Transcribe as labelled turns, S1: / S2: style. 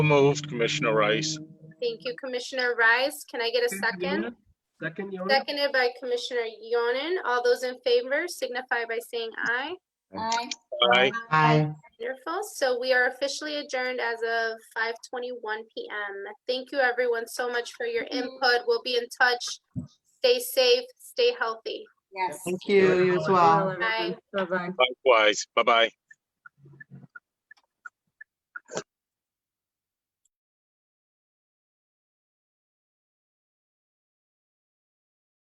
S1: Moved, Commissioner Rice.
S2: Thank you, Commissioner Rice. Can I get a second?
S3: Second, Your Honor.
S2: Seconded by Commissioner Yonan. All those in favor signify by saying aye.
S4: Aye.
S1: Aye.
S5: Aye.
S2: Wonderful. So we are officially adjourned as of 5:21 PM. Thank you, everyone, so much for your input. We'll be in touch. Stay safe, stay healthy.
S4: Yes.
S5: Thank you, you as well.
S2: Bye.
S6: Bye-bye.
S1: Likewise. Bye-bye.